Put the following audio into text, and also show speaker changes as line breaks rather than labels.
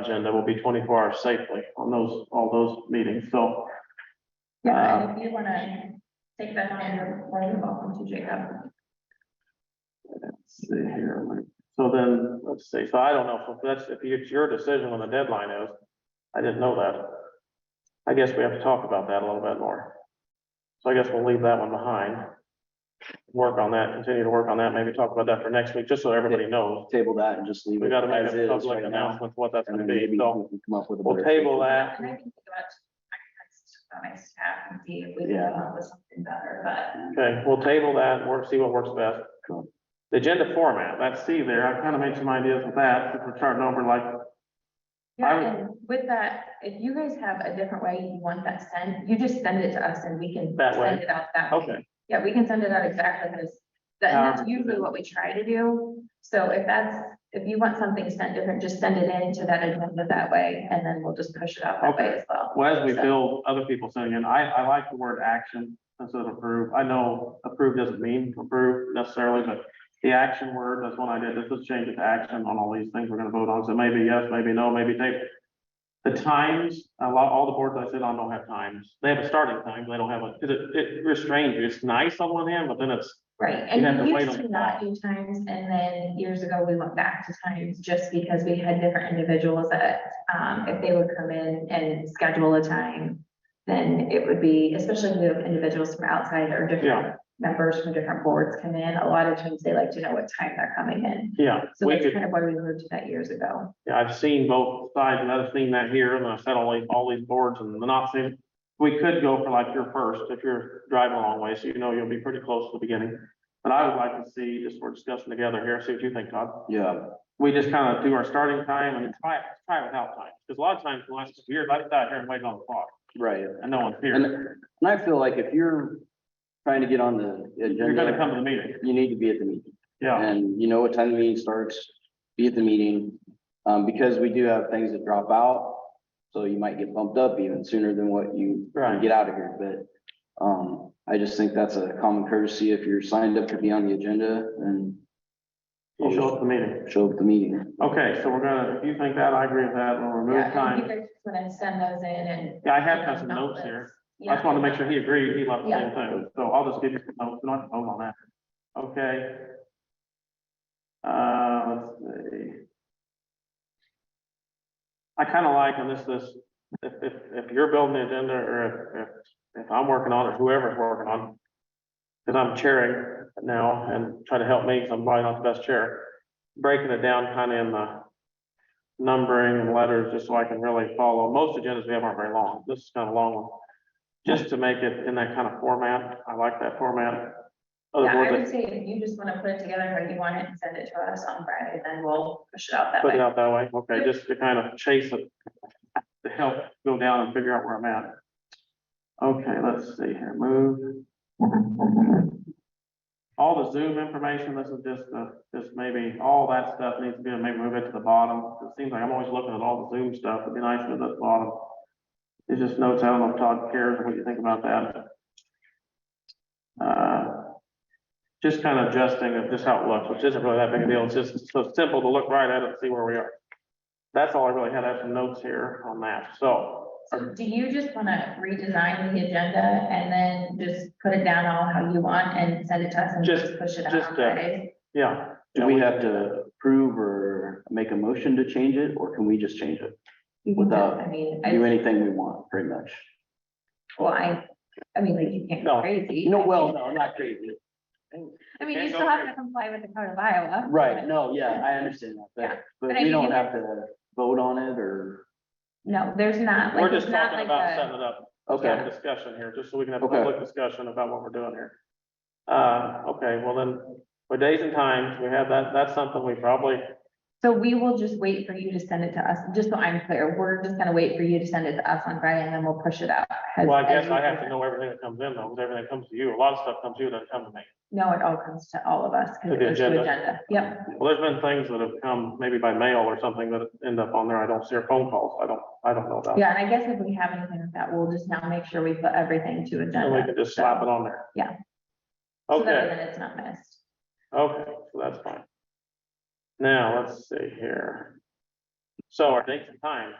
agenda will be twenty-four hours safely on those, all those meetings, so. Um,
Yeah, if you wanna take that on your, plan, you're welcome to, Jacob.
Let's see here, so then, let's see, so I don't know, if that's, if it's your decision when the deadline is, I didn't know that. I guess we have to talk about that a little bit more. So I guess we'll leave that one behind. Work on that, continue to work on that, maybe talk about that for next week, just so everybody knows.
Table that and just leave
We
it
gotta make
as
a
is
public
right now.
announcement what that's
And
gonna
then
be,
maybe we
so.
can come up with a.
We'll
better
table that.
And I can think about, I can text my staff and see if we can
Yeah.
come up with something better, but
Okay, we'll table that and work, see what works best.
Cool.
The agenda format, that's C there. I kind of made some ideas with that. If we're starting over like, I
yeah,
would-
and with that, if you guys have a different way you want that sent, you just send it to us and we can
That way.
send it out that way.
okay, Um,
Yeah, we can send it out exactly as, that- and that's usually what we try to do. So if that's, if you want something sent different, just send it in to that agenda that way, and then we'll just push it out that way
Okay.
as well.
well, as we build other people sending in, I, I like the word action instead of approve. I know approve doesn't mean approve necessarily, but the action word, that's one I did. This is change it to action on all these things we're gonna vote on. So maybe yes, maybe no, maybe table. The times, a lot, all the boards I sit on don't have times. They have a starting time. They don't have a, it, it restrains you. It's nice on one hand, but then it's
Right,
You'd have to
and we
wait
used
on
to
that.
not do times, and then years ago, we went back to times just because we had different individuals that, um, if they would come in and schedule a time, then it would be, especially if we have individuals from outside
Yeah.
or different members from different boards come in, a lot of times they like to know what time they're coming in.
Yeah,
So
we
that's
could,
kind of why we moved to that years ago.
yeah, I've seen both sides, and I've seen that here, and I've sat on these- all these boards and the not seen. We could go for like your first, if you're driving a long way, so you know you'll be pretty close to the beginning. But I would like to see, just we're discussing together here, see what you think, Todd.
Yeah,
We just kind of do our starting time and try, try without time, because a lot of times, the last few years, I sat out here and waited on the clock,
right.
and no one's
And,
here.
and I feel like if you're trying to get on the
You're gonna
agenda,
come to the meeting,
you need to be at the meeting.
yeah,
And you know what time the meeting starts, be at the meeting, um, because we do have things that drop out. So you might get bumped up even sooner than what you
Right.
get out of here, but, um, I just think that's a common courtesy. If you're signed up to be on the agenda and
you'll show up at the meeting.
show up at the meeting.
Okay, so we're gonna, if you think that, I agree with that, we'll remove
Yeah, and
time.
you guys just wanna send those in and.
Yeah, I have got some
Not
notes
this.
here. I
Yeah.
just wanted to make sure he agreed, he left the same thing, so I'll just give you some notes, and I can vote on that. Okay. Uh, let's see. I kind of like, and this, this, if, if, if you're building the agenda, or if, if, if I'm working on it, whoever's working on. it, Cause I'm chairing now and try to help me, because I'm probably not the best chair, breaking it down kind of in the numbering and letters, just so I can really follow. Most agendas we have aren't very long. This is kind of a long one. Just to make it in that kind of format. I like that format. Other
Yeah, I
boards,
would say if you just wanna put it together how you want it and send it to us on Friday, then we'll push it out that
put it
way.
out that way. Okay, just to kind of chase it. To help go down and figure out where I'm at. Okay, let's see here. Move. All the Zoom information, this is just, uh, just maybe all that stuff needs to be, maybe move it to the bottom. It seems like I'm always looking at all the Zoom stuff. It'd be nice if it's at the bottom. It's just notes. I don't know if Todd cares what you think about that. Uh, just kind of adjusting of just how it looks, which isn't really that big a deal. It's just so simple to look right at it and see where we are. That's all I really had. I have some notes here on that. So
So do you just wanna redesign the agenda and then just put it down all how you want and send it to us and
Just-
just push it out
just,
on
uh,
Friday?
Yeah.
Do we
Uh,
have to approve or make a motion to change it, or can we just change it?
You can do-
without
I mean,
Do
I,
anything we want, pretty much.
well, I, I mean, like, you can't
No.
go crazy.
You know, well, no, not crazy.
I mean,
Can't
you
go
still have to
crazy.
comply with the code of Iowa.
Right, no, yeah, I understand that,
Yeah,
but,
but
but
I
we
mean, you
don't
have-
have to vote on it, or,
No, there's not,
We're
like,
just
it's not
talking
like
about
a,
setting it up,
okay.
a discussion here, just so we can have a
Okay.
public discussion about what we're doing here. Uh, okay, well then, with days and times, we have that, that's something we probably,
so we will just wait for you to send it to us, just so I'm clear, we're just gonna wait for you to send it to us on Friday and then we'll push it out. as-
well, I
as
guess
you
I have to
present.
know everything that comes in though, because everything comes to you. A lot of stuff comes to you, doesn't come to me.
No, it all comes to all of us,
To
because
the
it was to
agenda.
agenda, yep,
Well, there's been things that have come maybe by mail or something that end up on there. I don't see or phone calls. I don't, I don't know about.
yeah, and I guess if we have anything with that, we'll just now make sure we put everything to
And we
agenda.
can just slap it on there.
Yeah. so that way
Okay,
Then it's not missed.
okay, so that's fine. Now, let's see here. So our dates and times.